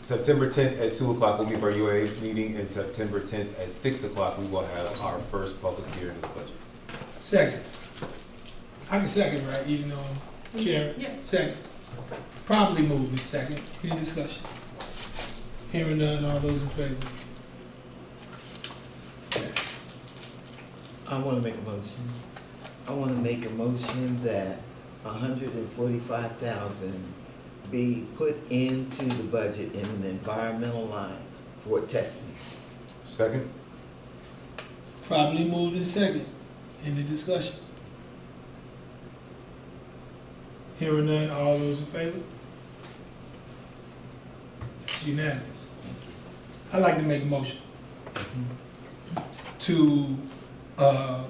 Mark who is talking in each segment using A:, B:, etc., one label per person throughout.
A: September 10th at 2 o'clock will be our UAA meeting, and September 10th at 6 o'clock, we will have our first public hearing of the budget.
B: Second. I can second, right, even though I'm chair?
C: Yeah.
B: Second. Probably move in second. Any discussion? Hearing none, all those in favor?
D: I want to make a motion. I want to make a motion that hundred and forty-five thousand be put into the budget in an environmental line for testing.
A: Second?
B: Probably moved in second. Any discussion? Hearing none, all those in favor? It's unanimous. I'd like to make a motion to, uh,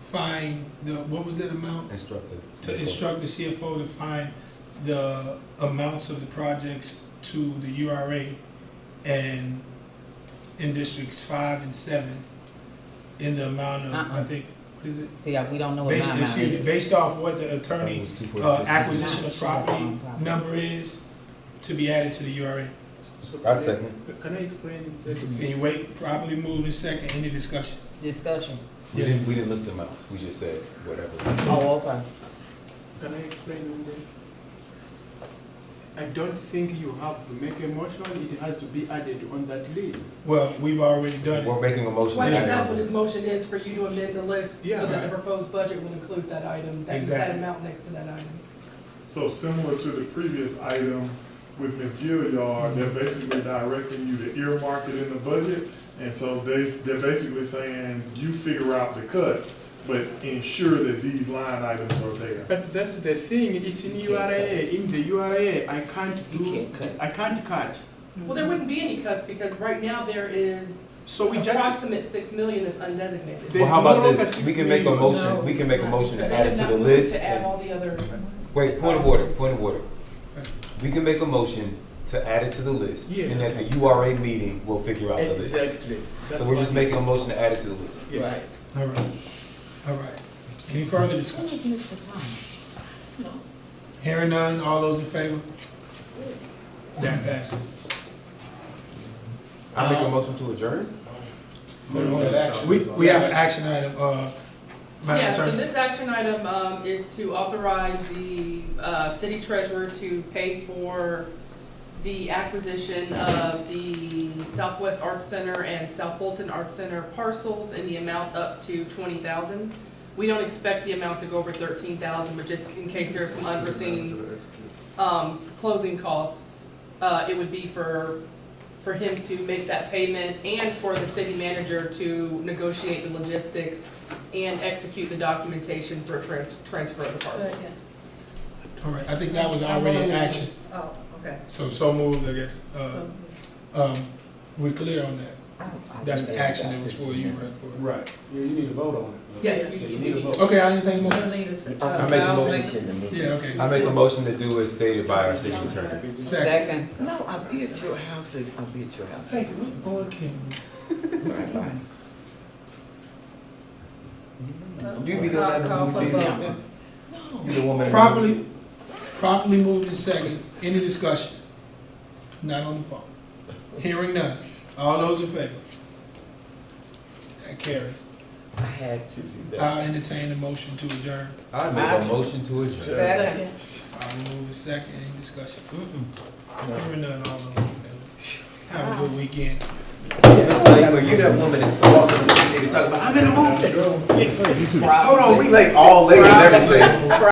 B: find the, what was that amount?
A: Instructive.
B: To instruct the CFO to find the amounts of the projects to the URA and in districts five and seven in the amount of, I
E: Uh-uh.
B: think, what is it?
E: See, uh, we don't know what
B: Based,
E: my amount
B: excuse me,
E: is.
B: based off what the attorney uh, acquisition of
E: Sure.
B: property number is to be added to the URA.
A: I second.
F: Can I explain
B: Can you wait, properly moved in second, any discussion?
E: It's Discussion.
A: We didn't, we didn't list the amounts, we just said whatever.
E: Oh, okay.
F: Can I explain one thing? I don't think you have to make a motion, it has to be added on that list.
B: Well, we've already done it.
A: We're making a motion.
C: Well, I
A: to
C: think
A: add
C: that's
A: on
C: what his
A: this.
C: motion is, for you to amend the list
F: Yeah.
C: so that the proposed budget will include that item, that, that
B: Exactly.
C: amount next to that item.
G: So similar to the previous item with Ms. Gilliard, they're basically directing you to earmark it in the budget. And so they, they're basically saying, you figure out the cuts, but ensure that these line items are there.
F: But that's the thing, it's in URA, in the URA, I can't
D: You
F: do,
D: can't cut.
F: I can't cut.
C: Well, there wouldn't be any cuts, because right now there is
F: So we just,
C: approximate six million that's undesignated.
F: They-
A: Well, how
F: There's no
A: about
F: longer
A: this? We
F: six
A: can make a
F: million.
A: motion, we can make a motion to add it to the list.
C: To add all the other,
A: Wait, point of order, point of order. We can make a motion to add it to the list.
F: Yes.
A: And at the URA meeting, we'll figure out the list.
D: Exactly.
A: So
F: That's
A: we're just
F: what-
A: making a motion to add it to the list.
F: Yes.
D: Right.
B: All right, all right. Any further discussion? Hearing none, all those in favor? That passes.
A: I make a motion to adjourn?
B: We, we have an action item, uh, Madam
C: yeah, so
B: Attorney.
C: this action item, um, is to authorize the, uh, city treasurer to pay for the acquisition of the Southwest Arts Center and South Fulton Arts Center parcels in the amount up to twenty thousand. We don't expect the amount to go over thirteen thousand, but just in case there's some unforeseen um, closing costs, uh, it would be for, for him to make that payment and for the city manager to negotiate the logistics and execute the documentation for trans, transfer of the parcels.
B: All right, I think that was already an action,
H: Oh, okay.
B: so, so moved, I guess. Uh,
H: So,
B: um, we're clear on that.
D: I- I
B: That's
D: think
B: the
D: they
B: action
D: got
B: that was for you, right? Cora?
F: Right, yeah, you need to vote on it.
C: Yes, you, you need
B: Okay, I entertain a
H: we'll
B: motion.
H: need a-
D: I
A: make the
H: I'll
A: motion.
H: make-
D: Motion to me.
B: Yeah, okay.
A: I make a motion to do as stated by our city attorney.
B: Second.
E: Second.
D: No, I'll be at your house, I'll be at your house.
B: Hey, what's on camera?
D: Right, right.
A: You be the
H: I'll call for
A: woman.
H: vote.
A: You the woman.
B: Properly, properly moved in second. Any discussion? Not on the phone. Hearing none. All those in favor? That carries.
D: I had to do that.
B: I'll entertain a motion to adjourn.
A: I make a motion to adjourn.
E: Second.
B: I'll move in second. Any discussion?
D: No.
B: Hearing none. All those in favor? Have a good weekend.
A: Miss Lakeman, you that woman that walked in the meeting talking about, I'm in the mood. Hold on, we late all late and everything.